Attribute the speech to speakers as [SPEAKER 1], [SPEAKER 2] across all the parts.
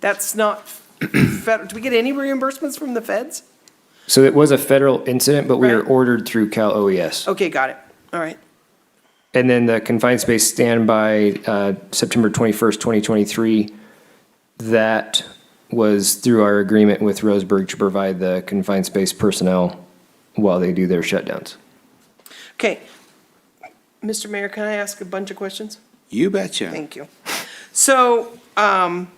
[SPEAKER 1] That's not, fed- do we get any reimbursements from the feds?
[SPEAKER 2] So it was a federal incident, but we are
[SPEAKER 1] Right.
[SPEAKER 2] ordered through Cal OES.
[SPEAKER 1] Okay, got it. All right.
[SPEAKER 2] And then the confined space standby, uh, September 21st, 2023, that was through our agreement with Roseburg to provide the confined space personnel while they do their shutdowns.
[SPEAKER 1] Okay. Mr. Mayor, can I ask a bunch of questions?
[SPEAKER 3] You betcha.
[SPEAKER 1] Thank you. So, um,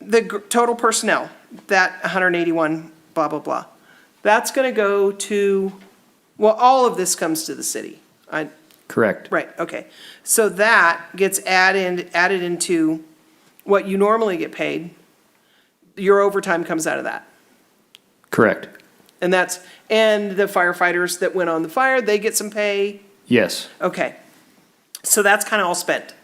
[SPEAKER 1] the gr- total personnel, that hundred and eighty-one, blah, blah, blah, that's gonna go to, well, all of this comes to the city. I,
[SPEAKER 2] Correct.
[SPEAKER 1] right, okay. So that gets added, added into what you normally get paid. Your overtime comes out of that.
[SPEAKER 2] Correct.
[SPEAKER 1] And that's, and the firefighters that went on the fire, they get some pay.
[SPEAKER 2] Yes.
[SPEAKER 1] Okay. So that's kind of all spent.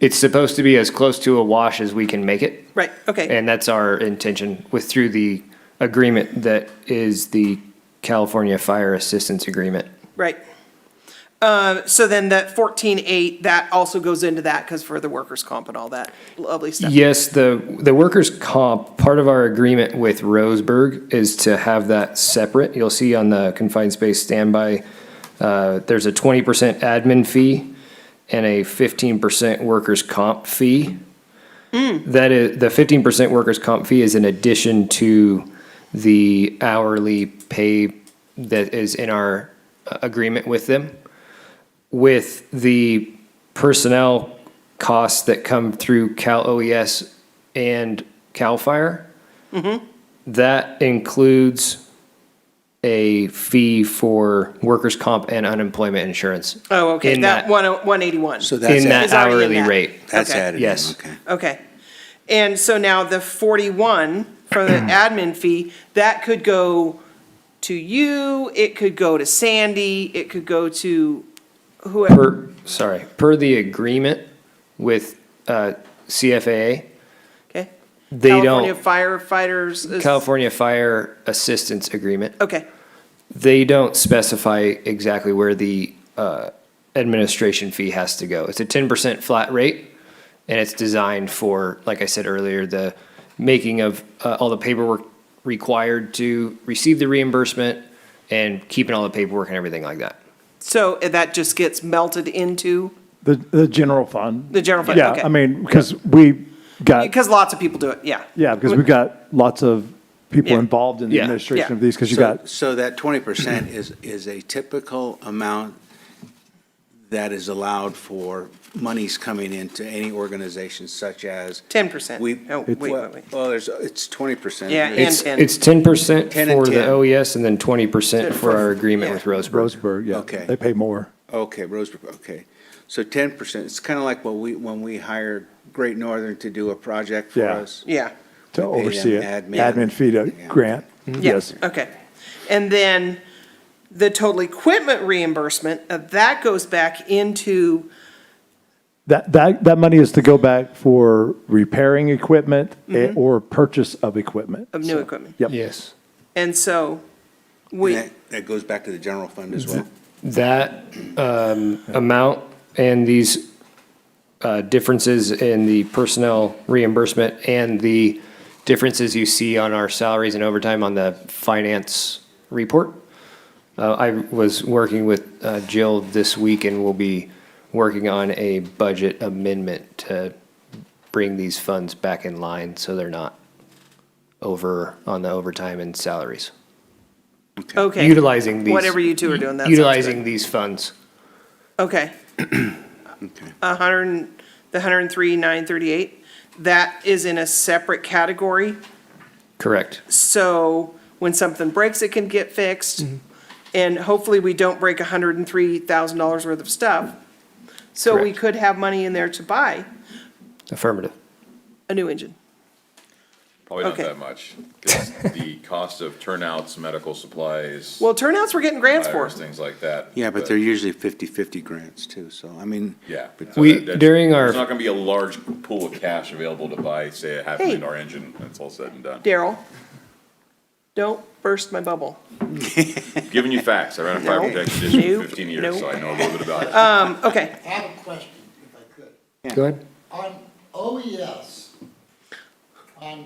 [SPEAKER 2] It's supposed to be as close to a wash as we can make it.
[SPEAKER 1] Right, okay.
[SPEAKER 2] And that's our intention with through the agreement that is the California Fire Assistance Agreement.
[SPEAKER 1] Right. Uh, So then that fourteen eight, that also goes into that because for the workers' comp and all that lovely stuff.
[SPEAKER 2] Yes, the, the workers' comp, part of our agreement with Roseburg is to have that separate. You'll see on the confined space standby, uh, there's a twenty percent admin fee and a fifteen percent workers' comp fee. That is, the fifteen percent workers' comp fee is in addition to the hourly pay that is in our uh, agreement with them. With the personnel costs that come through Cal OES and Cal Fire,
[SPEAKER 1] Mm-hmm.
[SPEAKER 2] that includes a fee for workers' comp and unemployment insurance.
[SPEAKER 1] Oh, okay,
[SPEAKER 2] in
[SPEAKER 1] that one, one eighty-one.
[SPEAKER 3] So that's
[SPEAKER 2] In that
[SPEAKER 3] added,
[SPEAKER 1] Is already in
[SPEAKER 2] hourly
[SPEAKER 1] that.
[SPEAKER 2] rate.
[SPEAKER 3] that's
[SPEAKER 1] Okay.
[SPEAKER 3] added, in,
[SPEAKER 2] Yes.
[SPEAKER 3] okay.
[SPEAKER 1] Okay. And so now the forty-one from the admin fee, that could go to you, it could go to Sandy, it could go to whoever.
[SPEAKER 2] Per, sorry, per the agreement with uh, CFAA,
[SPEAKER 1] Okay.
[SPEAKER 2] they
[SPEAKER 1] California
[SPEAKER 2] don't-
[SPEAKER 1] firefighters. is-
[SPEAKER 2] California Fire Assistance Agreement,
[SPEAKER 1] Okay,
[SPEAKER 2] they don't specify exactly where the uh, administration fee has to go. It's a 10% flat rate, and it's designed for, like I said earlier, the making of uh, all the paperwork required to receive the reimbursement and keeping all the paperwork and everything like that.
[SPEAKER 1] so that just gets melted into,
[SPEAKER 4] The, the general fund.
[SPEAKER 1] The general fund, okay.
[SPEAKER 4] Yeah, I mean, because we got,
[SPEAKER 1] because lots of people do it, yeah.
[SPEAKER 4] Uh, yeah, because we've got lots of people
[SPEAKER 1] Yeah.
[SPEAKER 4] involved in the
[SPEAKER 2] Yeah.
[SPEAKER 4] administration
[SPEAKER 1] Yeah.
[SPEAKER 4] of these, because you
[SPEAKER 3] So-
[SPEAKER 4] got,
[SPEAKER 3] So that twenty percent is, is a typical amount that is allowed for monies coming into any organization such as.
[SPEAKER 1] 10%.
[SPEAKER 3] We,
[SPEAKER 1] Oh,
[SPEAKER 3] well,
[SPEAKER 1] wait, wait, wait.
[SPEAKER 3] well, there's, it's twenty percent.
[SPEAKER 1] Yeah, and-
[SPEAKER 2] It's, it's 10%
[SPEAKER 3] 10 and
[SPEAKER 2] for the
[SPEAKER 3] 10.
[SPEAKER 2] OES and then 20% for our agreement with Roseburg.
[SPEAKER 4] Roseburg, yeah,
[SPEAKER 3] Okay.
[SPEAKER 4] they pay more.
[SPEAKER 3] Okay, Rosebrook, okay. So ten percent, it's kind of like what we, when we hired Great Northern to do a project for
[SPEAKER 4] Yeah.
[SPEAKER 3] us.
[SPEAKER 1] Yeah,
[SPEAKER 3] We
[SPEAKER 4] to
[SPEAKER 3] pay them
[SPEAKER 4] oversee it.
[SPEAKER 3] admin.
[SPEAKER 4] Admin fee to
[SPEAKER 3] Yeah.
[SPEAKER 4] grant,
[SPEAKER 1] Mm-hmm. yeah,
[SPEAKER 4] yes.
[SPEAKER 1] okay. And then the total equipment reimbursement, uh, that goes back into,
[SPEAKER 4] That, that, that money is to go back for repairing equipment eh, or purchase of equipment.
[SPEAKER 1] Mm-hmm. of new equipment.
[SPEAKER 4] Yep.
[SPEAKER 2] Yes.
[SPEAKER 1] And so
[SPEAKER 3] And
[SPEAKER 1] we,
[SPEAKER 3] that, that goes back to the general fund
[SPEAKER 4] Mm-hmm.
[SPEAKER 3] as well.
[SPEAKER 2] That um, amount and these uh, differences in the personnel reimbursement and the differences you see on our salaries and overtime on the finance report. Uh, I was working with uh, Jill this week and we'll be working on a budget amendment to bring these funds back in line so they're not over on the overtime and salaries.
[SPEAKER 1] okay.
[SPEAKER 2] Utilizing these.
[SPEAKER 1] Whatever you two are doing, that sounds good.
[SPEAKER 2] Utilizing these funds.
[SPEAKER 1] Okay. A hundred, and- the hundred and three, nine thirty-eight, that is in a separate category.
[SPEAKER 2] Correct.
[SPEAKER 1] So when something breaks, it can get fixed. And hopefully we don't break hundred and three thousand dollars worth of stuff. So we
[SPEAKER 2] Correct.
[SPEAKER 1] could have money in there to buy
[SPEAKER 2] Affirmative.
[SPEAKER 1] a new engine.
[SPEAKER 5] Probably not
[SPEAKER 1] Okay.
[SPEAKER 5] that much. 'cause The cost of turnouts, medical supplies,
[SPEAKER 1] Well, turnouts, we're getting grants for.
[SPEAKER 5] tires, things like that.
[SPEAKER 3] Yeah, but they're usually 50-50 grants too, so I mean.
[SPEAKER 5] Yeah.
[SPEAKER 3] but-
[SPEAKER 5] so
[SPEAKER 2] We-
[SPEAKER 5] that- that's-
[SPEAKER 2] during our-
[SPEAKER 5] There's not gonna be a large pool of cash available to buy, say, a half
[SPEAKER 1] Hey.
[SPEAKER 5] million dollar engine, when it's all said and done.
[SPEAKER 1] Daryl, don't burst my bubble.
[SPEAKER 5] Giving you facts, I ran a fire
[SPEAKER 1] No,
[SPEAKER 5] protection district
[SPEAKER 1] no,
[SPEAKER 5] for fifteen
[SPEAKER 1] no.
[SPEAKER 5] years, so I know a little bit about it.
[SPEAKER 1] Um, okay,
[SPEAKER 6] I have a question, if I could.
[SPEAKER 2] Go ahead.
[SPEAKER 6] On OES,